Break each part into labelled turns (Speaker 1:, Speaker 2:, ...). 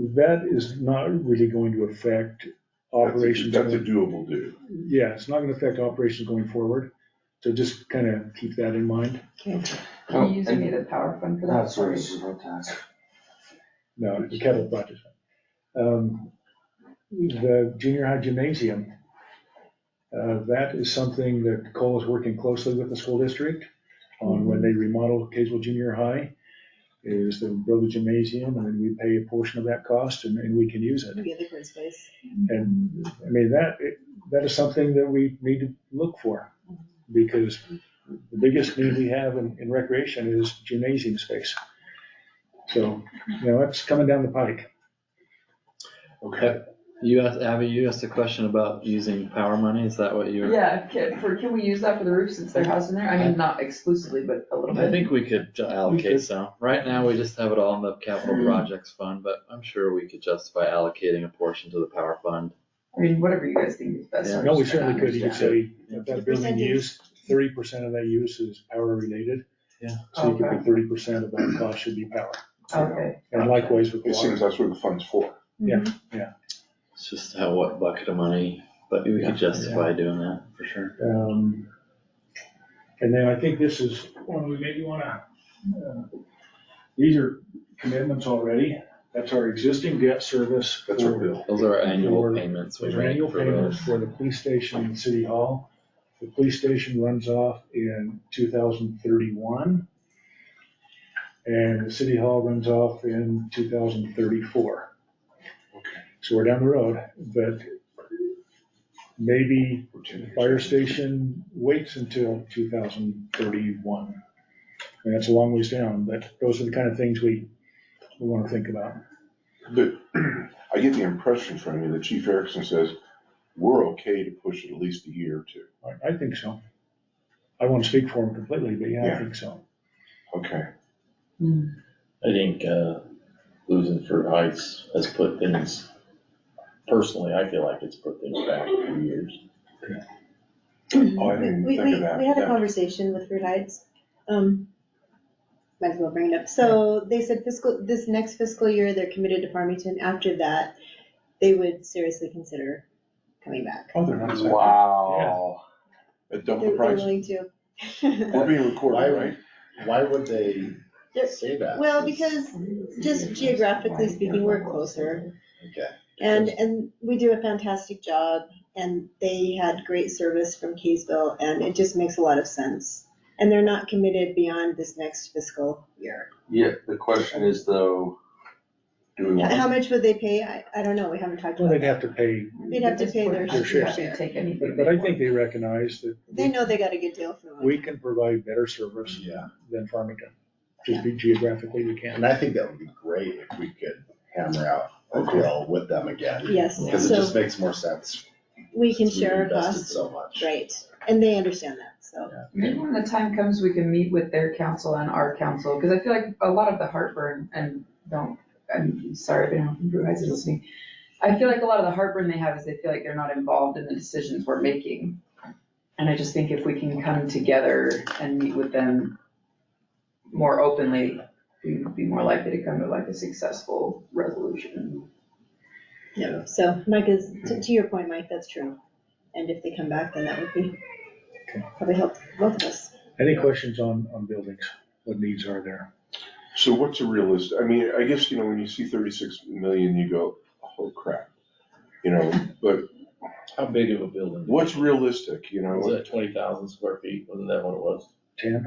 Speaker 1: that is not really going to affect operations.
Speaker 2: That's a
Speaker 1: going-
Speaker 2: doable do.
Speaker 1: Yeah, it's not gonna affect operations going forward, so just kind of keep that in mind.
Speaker 3: Okay,
Speaker 4: Oh,
Speaker 3: can you use
Speaker 4: and-
Speaker 3: any of the power fund for that?
Speaker 4: That's where it's real tax.
Speaker 1: No, the capital budget. Um, The junior high gymnasium, uh, that is something that Cole is working closely with the school district on when they remodel Kaysville Junior High, is to build a gymnasium, and then we pay a portion of that cost, and, and we can use it.
Speaker 5: Maybe the green space.
Speaker 1: And, I mean, that, that is something that we need to look for, because the biggest need we have in, in recreation is gymnasium space. So, you know, that's coming down the pike.
Speaker 2: Okay.
Speaker 6: You asked, Abby, you asked a question about using power money, is that what you were?
Speaker 3: Yeah, can, for, can we use that for the roof since they're housed in there? I mean, not exclusively, but a little
Speaker 6: I
Speaker 3: bit.
Speaker 6: think we could ju-
Speaker 1: We
Speaker 6: allocate
Speaker 1: could. Mm-hmm.
Speaker 6: some. Right now, we just have it all in the capital projects fund, but I'm sure we could justify allocating a portion to the power fund.
Speaker 3: I mean, whatever you guys think is best.
Speaker 6: Yeah.
Speaker 3: I'm
Speaker 1: No, we
Speaker 3: just trying to
Speaker 1: certainly could, you could
Speaker 3: understand.
Speaker 1: say, if that building use, thirty percent of that use is power related.
Speaker 6: Yeah.
Speaker 1: So you could put thirty percent of that cost should be power,
Speaker 3: Okay,
Speaker 1: and likewise with
Speaker 2: It seems
Speaker 1: water.
Speaker 2: that's what the fund's for.
Speaker 6: It's just how, what bucket of money, but we
Speaker 1: Yeah.
Speaker 6: could justify doing that, for sure.
Speaker 1: Um, And then I think this is one we maybe wanna, uh, these are commitments already, that's our existing debt service.
Speaker 2: That's our
Speaker 1: for-
Speaker 2: bill.
Speaker 6: Those are our
Speaker 1: For-
Speaker 6: annual payments we
Speaker 1: Those are
Speaker 6: make
Speaker 1: annual
Speaker 6: for
Speaker 1: payments
Speaker 6: those.
Speaker 1: for the police station and city hall. The police station runs off in two thousand thirty-one. And the city hall runs off in two thousand thirty-four. So we're down the road, but maybe the fire station waits until two thousand thirty-one. And that's a long ways down, but those are the kind of things we, we wanna think about.
Speaker 2: But I get the impression from you that Chief Erickson says, we're okay to push it at least a year or two.
Speaker 1: I, I think so. I won't speak for him completely, but yeah, I
Speaker 2: Yeah.
Speaker 1: think so.
Speaker 2: Okay,
Speaker 7: I think, uh, losing Fruit Heights has put things, personally, I feel like it's put things back a few years.
Speaker 2: oh, I didn't
Speaker 5: We,
Speaker 2: even
Speaker 5: we,
Speaker 2: think of that.
Speaker 5: we had a
Speaker 2: Yeah.
Speaker 5: conversation with Fruit Heights, um, might as well bring it up. So they said fiscal, this next fiscal year, they're committed to Farmington. After that, they would seriously consider coming back.
Speaker 1: Oh, they're not exactly-
Speaker 4: Wow.
Speaker 2: At
Speaker 5: They're
Speaker 2: double the
Speaker 5: they're
Speaker 2: price.
Speaker 5: willing to.
Speaker 2: We're being
Speaker 7: Why
Speaker 2: recorded,
Speaker 7: would-
Speaker 2: right?
Speaker 7: Why would they
Speaker 5: There-
Speaker 7: say that?
Speaker 5: Well, because just geographically speaking, we're closer.
Speaker 7: Okay.
Speaker 5: And, and we do a fantastic job, and they had great service from Kaysville, and it just makes a lot of sense. And they're not committed beyond this next fiscal year.
Speaker 4: Yeah, the question is though, do we
Speaker 5: How
Speaker 4: want,
Speaker 5: much would they pay? I, I don't know, we haven't talked
Speaker 1: Well,
Speaker 5: about
Speaker 1: they'd have
Speaker 5: that.
Speaker 1: to pay,
Speaker 5: They'd have to pay their
Speaker 3: They
Speaker 1: share.
Speaker 3: should Take anything.
Speaker 1: but, but I
Speaker 3: they
Speaker 1: think they recognize that
Speaker 5: They know they got a good deal from
Speaker 1: we
Speaker 5: them.
Speaker 1: can provide better service
Speaker 7: Yeah,
Speaker 1: than Farmington. Just be geographically, we can.
Speaker 7: and I think that would be great if we could hammer out a deal with them again,
Speaker 5: Yes,
Speaker 7: because it
Speaker 5: so
Speaker 7: just makes more sense.
Speaker 5: we can
Speaker 7: since we've
Speaker 5: share our
Speaker 7: invested
Speaker 5: costs,
Speaker 7: So much.
Speaker 5: right, and they understand that, so.
Speaker 3: Maybe when the time comes, we can meet with their council and our council, because I feel like a lot of the heartburn, and don't, I'm sorry if anyone from Blue Heights is listening. I feel like a lot of the heartburn they have is they feel like they're not involved in the decisions we're making. And I just think if we can come together and meet with them more openly, we'd be more likely to come to like a successful resolution.
Speaker 5: Yeah, so Mike is, to, to your point, Mike, that's true. And if they come back, then that would be,
Speaker 1: Okay.
Speaker 5: probably help both of us.
Speaker 1: Any questions on, on buildings? What needs are there?
Speaker 2: So what's a realist, I mean, I guess, you know, when you see thirty-six million, you go, oh crap. You know, but
Speaker 7: How big of a building?
Speaker 2: what's realistic, you know?
Speaker 7: Was it twenty thousand square feet? Wasn't that what it was?
Speaker 1: Ten?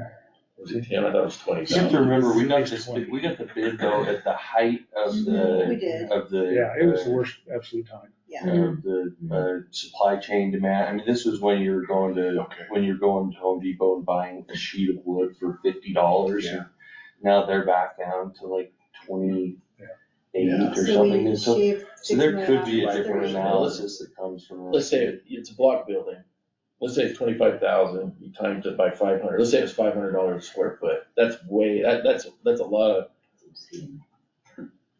Speaker 7: Was it ten? I thought it was twenty
Speaker 4: you have to
Speaker 7: thousand.
Speaker 4: remember, we got this, bid- we got the bid though at the height of
Speaker 5: Mm-hmm. We
Speaker 4: the,
Speaker 5: did.
Speaker 4: of the.
Speaker 1: Yeah, it was
Speaker 4: uh,
Speaker 1: the worst absolute time.
Speaker 4: of the uh, supply chain demand. I mean, this was when you were going to,
Speaker 2: Okay.
Speaker 4: when you're going to Home Depot and buying a sheet of wood for fifty dollars.
Speaker 2: Yeah.
Speaker 4: Now they're back down to like twenty-eight
Speaker 7: Yeah.
Speaker 4: or
Speaker 5: So
Speaker 4: something.
Speaker 5: we
Speaker 4: And so,
Speaker 5: shaved
Speaker 4: so
Speaker 5: six
Speaker 4: there
Speaker 5: million
Speaker 4: could be a
Speaker 5: off the
Speaker 4: different
Speaker 5: thirty.
Speaker 4: analysis that comes from.
Speaker 7: Let's say it- it's a block building. Let's say it's twenty-five thousand, you times it by five hundred, let's say it's five hundred dollars a square foot. That's way, that, that's, that's a lot of,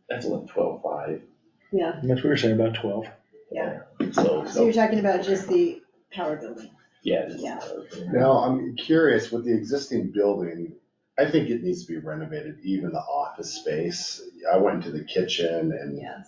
Speaker 7: that's like twelve-five.
Speaker 5: Yeah,
Speaker 1: And that's what we were saying, about twelve.
Speaker 5: Yeah.
Speaker 7: So,
Speaker 5: so you're talking about just the power building.
Speaker 7: yeah. just-
Speaker 5: Yeah.
Speaker 8: Now, I'm curious, with the existing building, I think it needs to be renovated, even the office space. I went into the kitchen and
Speaker 5: Yes.